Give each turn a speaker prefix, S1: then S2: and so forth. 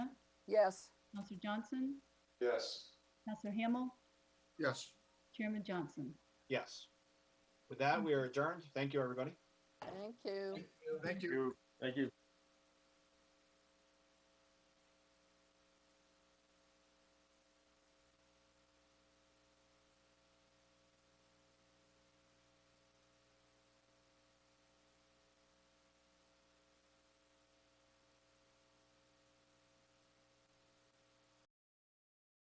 S1: yes,
S2: Counselor Johnson,
S3: Yes.
S2: Counselor Hamel,
S4: Yes.
S2: Chairman Johnson.
S5: Yes. With that, we are adjourned. Thank you, everybody.
S1: thank you.
S4: Thank you.
S3: Thank you.